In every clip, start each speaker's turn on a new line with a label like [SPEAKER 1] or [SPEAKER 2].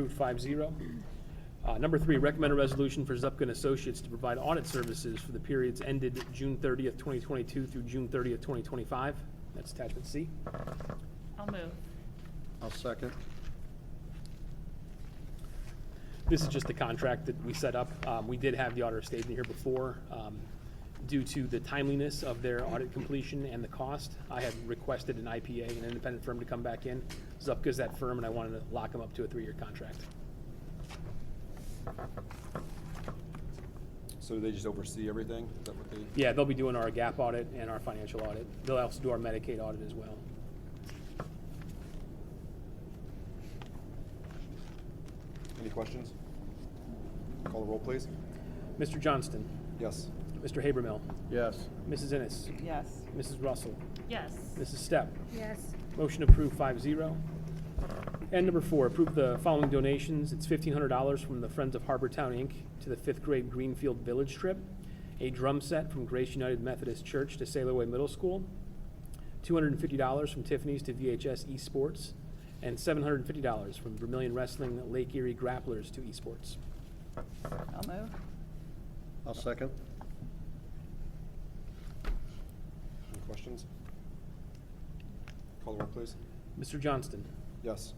[SPEAKER 1] Approved five zero. Uh, Number three, recommend a resolution for Zupkin Associates to provide audit services for the periods ended June 30th, 2022 through June 30th, 2025. That's attachment C.
[SPEAKER 2] I'll move.
[SPEAKER 3] I'll second.
[SPEAKER 1] This is just the contract that we set up. Um, We did have the auditor stayed in here before. Um, Due to the timeliness of their audit completion and the cost, I had requested an IPA, an independent firm, to come back in. Zupka's that firm, and I wanted to lock them up to a three-year contract.
[SPEAKER 4] So they just oversee everything? Is that what they?
[SPEAKER 1] Yeah, they'll be doing our gap audit and our financial audit. They'll also do our Medicaid audit as well.
[SPEAKER 4] Any questions? Call the roll, please.
[SPEAKER 1] Mr. Johnston,
[SPEAKER 4] Yes.
[SPEAKER 1] Mr. Habermill,
[SPEAKER 3] Yes.
[SPEAKER 1] Mrs. Ennis,
[SPEAKER 5] Yes.
[SPEAKER 1] Mrs. Russell,
[SPEAKER 2] Yes.
[SPEAKER 1] Mrs. Stepp.
[SPEAKER 6] yes,
[SPEAKER 1] Motion approved five zero. And number four, approve the following donations. It's fifteen hundred dollars from the Friends of Harbortown Inc. to the fifth grade Greenfield Village trip, a drum set from Grace United Methodist Church to Sailor Way Middle School, two hundred and fifty dollars from Tiffany's to VHS Esports, and seven hundred and fifty dollars from Vermillion Wrestling Lake Erie Grapplers to Esports.
[SPEAKER 5] I'll move.
[SPEAKER 3] I'll second.
[SPEAKER 4] Any questions? Call the roll, please.
[SPEAKER 1] Mr. Johnston,
[SPEAKER 4] Yes.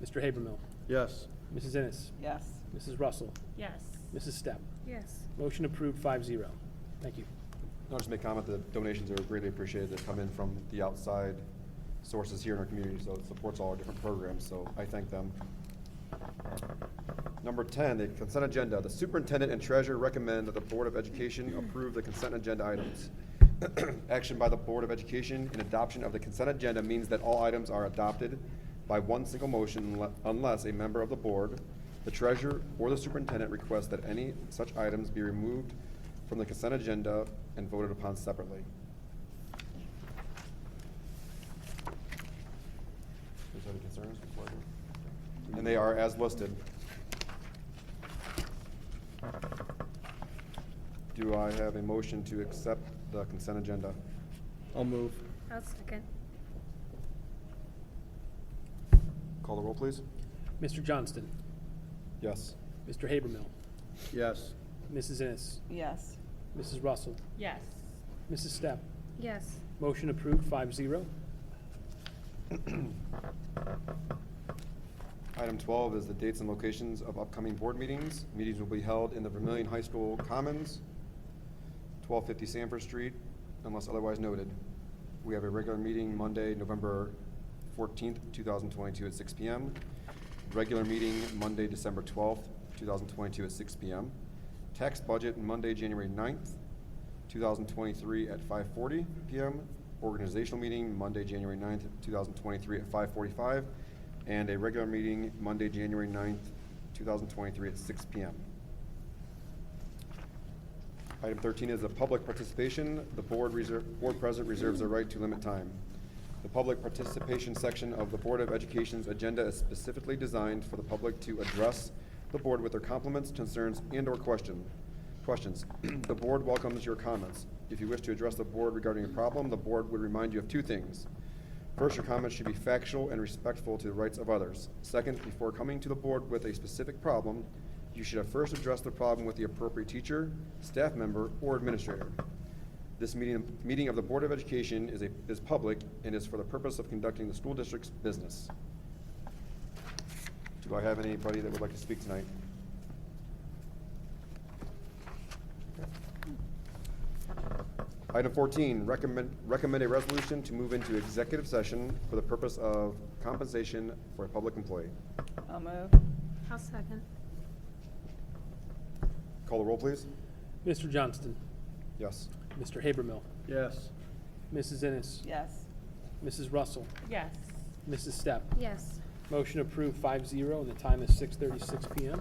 [SPEAKER 1] Mr. Habermill,
[SPEAKER 3] Yes.
[SPEAKER 1] Mrs. Ennis,
[SPEAKER 5] Yes.
[SPEAKER 1] Mrs. Russell,
[SPEAKER 2] Yes.
[SPEAKER 1] Mrs. Stepp.
[SPEAKER 6] yes,
[SPEAKER 1] Motion approved five zero. Thank you.
[SPEAKER 4] I'll just make comment that donations are greatly appreciated. They come in from the outside sources here in our community, so it supports all our different programs, so I thank them. Number 10, the consent agenda. The superintendent and treasurer recommend that the Board of Education approve the consent agenda items. Action by the Board of Education and adoption of the consent agenda means that all items are adopted by one single motion unle- unless a member of the board, the treasurer, or the superintendent requests that any such items be removed from the consent agenda and voted upon separately. Is there any concerns? And they are as listed. Do I have a motion to accept the consent agenda?
[SPEAKER 3] I'll move.
[SPEAKER 6] I'll second,
[SPEAKER 4] Call the roll, please.
[SPEAKER 1] Mr. Johnston,
[SPEAKER 4] Yes.
[SPEAKER 1] Mr. Habermill,
[SPEAKER 3] Yes.
[SPEAKER 1] Mrs. Ennis,
[SPEAKER 5] Yes.
[SPEAKER 1] Mrs. Russell,
[SPEAKER 2] Yes.
[SPEAKER 1] Mrs. Stepp.
[SPEAKER 6] yes,
[SPEAKER 1] Motion approved, five zero.
[SPEAKER 4] Item 12 is the dates and locations of upcoming board meetings. Meetings will be held in the Vermillion High School Commons, 1250 Sanford Street, unless otherwise noted. We have a regular meeting Monday, November 14th, 2022 at 6 PM. Regular meeting Monday, December 12th, 2022 at 6 PM. Tax budget Monday, January 9th, 2023 at 5:40 PM. Organizational meeting Monday, January 9th, 2023 at 5:45. And a regular meeting Monday, January 9th, 2023 at 6 PM. Item 13 is the public participation. The board reserve, board president reserves the right to limit time. The public participation section of the Board of Education's agenda is specifically designed for the public to address the board with their compliments, concerns, and/or question. Questions. The board welcomes your comments. If you wish to address the board regarding a problem, the board would remind you of two things. First, your comments should be factual and respectful to the rights of others. Second, before coming to the board with a specific problem, you should have first addressed the problem with the appropriate teacher, staff member, or administrator. This meeting, meeting of the Board of Education is a, is public and is for the purpose of conducting the school district's business. Do I have anybody that would like to speak tonight? Item fourteen, recommend, recommend a resolution to move into executive session for the purpose of compensation for a public employee.
[SPEAKER 5] I'll move.
[SPEAKER 6] I'll second,
[SPEAKER 4] Call the roll, please.
[SPEAKER 1] Mr. Johnston,
[SPEAKER 4] Yes.
[SPEAKER 1] Mr. Habermill,
[SPEAKER 3] Yes.
[SPEAKER 1] Mrs. Ennis,
[SPEAKER 5] Yes.
[SPEAKER 1] Mrs. Russell,
[SPEAKER 2] Yes.
[SPEAKER 1] Mrs. Stepp.
[SPEAKER 6] yes.
[SPEAKER 1] Motion approved, five zero, and the time is six thirty-six PM.